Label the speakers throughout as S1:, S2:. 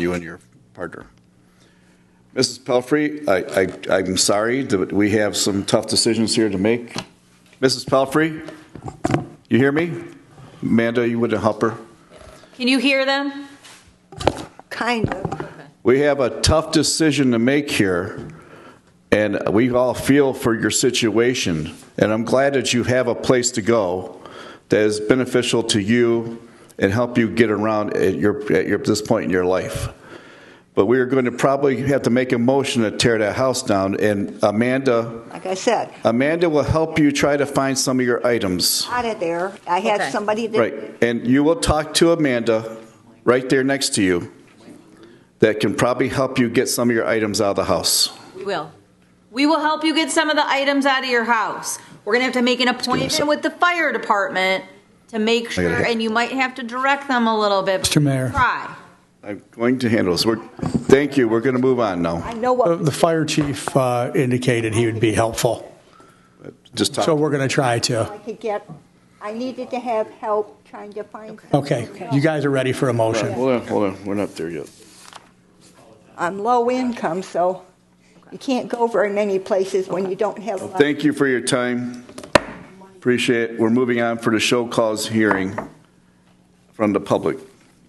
S1: you and your partner. Mrs. Pelfrey, I, I, I'm sorry that we have some tough decisions here to make. Mrs. Pelfrey, you hear me? Amanda, you would help her?
S2: Can you hear them?
S3: Kind of.
S1: We have a tough decision to make here, and we all feel for your situation. And I'm glad that you have a place to go that is beneficial to you and help you get around at your, at your, this point in your life. But we are going to probably have to make a motion to tear that house down, and Amanda,
S3: Like I said,
S1: Amanda will help you try to find some of your items.
S3: out of there. I had
S2: Okay.
S3: somebody that.
S1: Right, and you will talk to Amanda, right there next to you, that can probably help you get some of your items out of the house.
S2: We will. We will help you get some of the items out of your house. We're gonna have to make an appointment with the fire department to make
S1: gotta
S2: sure,
S1: hit-
S2: and you might have to direct them a little bit.
S4: Mr. Mayor.
S2: Try.
S1: I'm going to handle this. We're, thank you, we're going to move on now.
S3: I know
S4: The
S3: what,
S4: Uh, the fire chief uh, indicated he would be helpful,
S1: Just
S4: so
S1: talk.
S4: we're going to try to.
S3: I could get, I needed to have help trying to find.
S4: Okay, you guys are ready for a motion.
S1: Hold on, hold on, we're not there yet.
S3: I'm low income, so you can't go very many places when you don't have. a lot.
S1: Thank you for your time. Appreciate it. We're moving on for the show cause hearing from the public.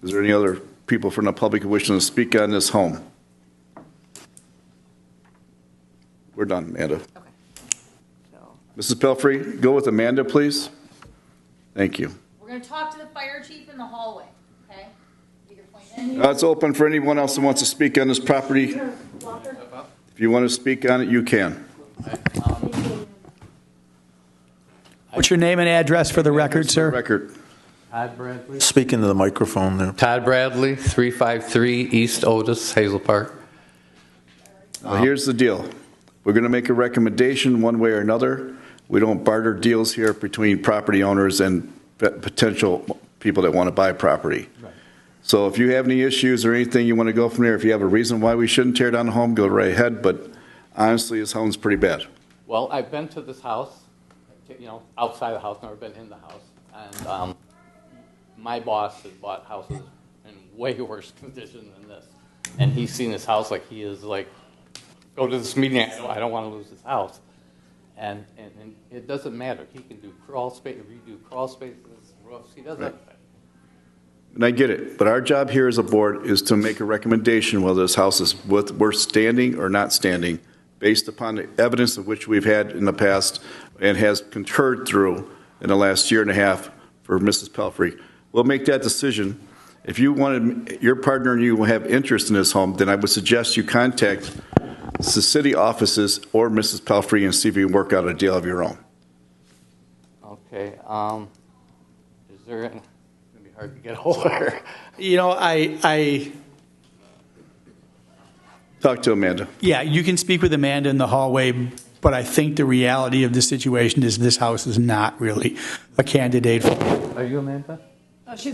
S1: Is there any other people from the public who wish to speak on this home? We're done, Amanda.
S3: So,
S1: Mrs. Pelfrey, go with Amanda, please. Thank you.
S2: We're gonna talk to the fire chief in the hallway, okay? Get your point in.
S1: Uh, It's open for anyone else who wants to speak on this property. If you want to speak on it, you can.
S4: What's your name and address for the record, sir?
S1: Record.
S5: Todd Bradley.
S6: Speaking to the microphone there.
S5: Todd Bradley, 353 East Otis, Hazel Park.
S1: Well, here's the deal. We're going to make a recommendation one way or another. We don't barter deals here between property owners and p- potential people that want to buy property. So if you have any issues or anything you want to go from there, if you have a reason why we shouldn't tear down the home, go right ahead. But honestly, this home's pretty bad.
S5: Well, I've been to this house, you know, outside the house, never been in the house. And um, my boss has bought houses in way worse condition than this. And he's seen this house like he is like, go to this meeting, I don't, I don't want to lose this house. And, and, and it doesn't matter. He can do crawl space, redo crawl spaces, roofs, he does
S1: Right.
S5: everything.
S1: And I get it, but our job here as a board is to make a recommendation whether this house is worth, worth standing or not standing, based upon the evidence of which we've had in the past and has concurred through in the last year and a half for Mrs. Pelfrey. We'll make that decision. If you wanted, your partner and you will have interest in this home, then I would suggest you contact the city offices or Mrs. Pelfrey and see if you can work out a deal of your own.
S5: Okay, um, is there, an- it's gonna be hard to get hold of her.
S4: You know, I, I,
S1: Talk to Amanda.
S4: yeah, you can speak with Amanda in the hallway, but I think the reality of the situation is this house is not really a candidate for
S5: Are you Amanda?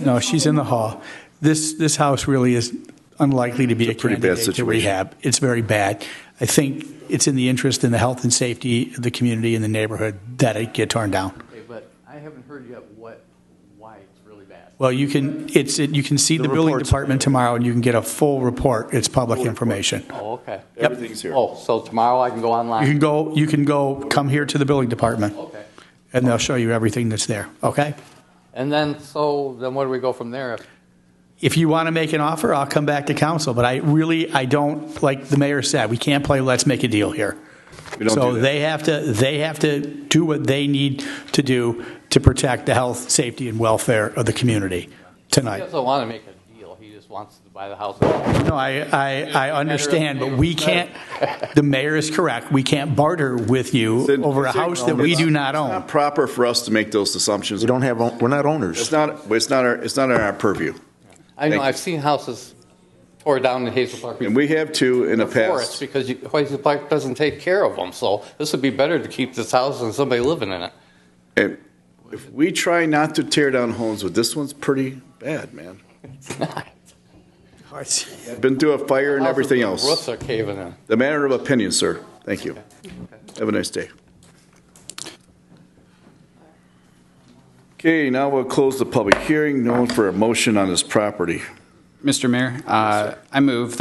S4: No, she's in the hall. This, this house really is unlikely to be a
S1: It's a pretty bad
S4: candidate to
S1: situation.
S4: rehab. It's very bad. I think it's in the interest in the health and safety of the community and the neighborhood that it get torn down.
S5: Okay, but I haven't heard yet what, why it's really bad.
S4: Well, you can, it's, you can see the building
S1: report's-
S4: department tomorrow and you can get a full report. It's public information.
S5: Oh, okay.
S1: Everything's here.
S5: Oh, so tomorrow I can go
S4: You can
S5: online?
S4: go, you can go, come here to the building department
S5: Okay.
S4: and they'll show you everything that's there, okay?
S5: And then, so, then where do we go from there? If-
S4: If you want to make an offer, I'll come back to council, but I really, I don't, like the mayor said, we can't play let's make a deal here.
S1: We don't
S4: So
S1: do that.
S4: they have to, they have to do what they need to do to protect the health, safety, and welfare of the community
S5: He
S4: tonight.
S5: doesn't want to make a deal, he just wants to buy the house.
S4: No, I, I, I understand, but we can't, the mayor is correct, we can't barter with you over a house that we do not
S1: It's
S4: own.
S1: not proper for us to make those assumptions.
S6: We don't have, own- we're not
S1: It's
S6: owners.
S1: not, it's not our, it's not our purview.
S5: I know,
S1: Thank you.
S5: I've seen houses tore down in Hazel Park
S1: And we have two in the
S5: before, it's
S1: past.
S5: because you- Hazel Park doesn't take care of them, so this would be better to keep this house than somebody living in it.
S1: And if we try not to tear down homes, but this one's pretty bad, man.
S5: It's not.
S1: Been through a fire and everything
S5: Houses, the Roofs
S1: else.
S5: are caving in.
S1: The matter of opinion, sir. Thank you. Have a nice day. Okay, now we'll close the public hearing. No one for a motion on this property.
S7: Mr. Mayor, uh, I move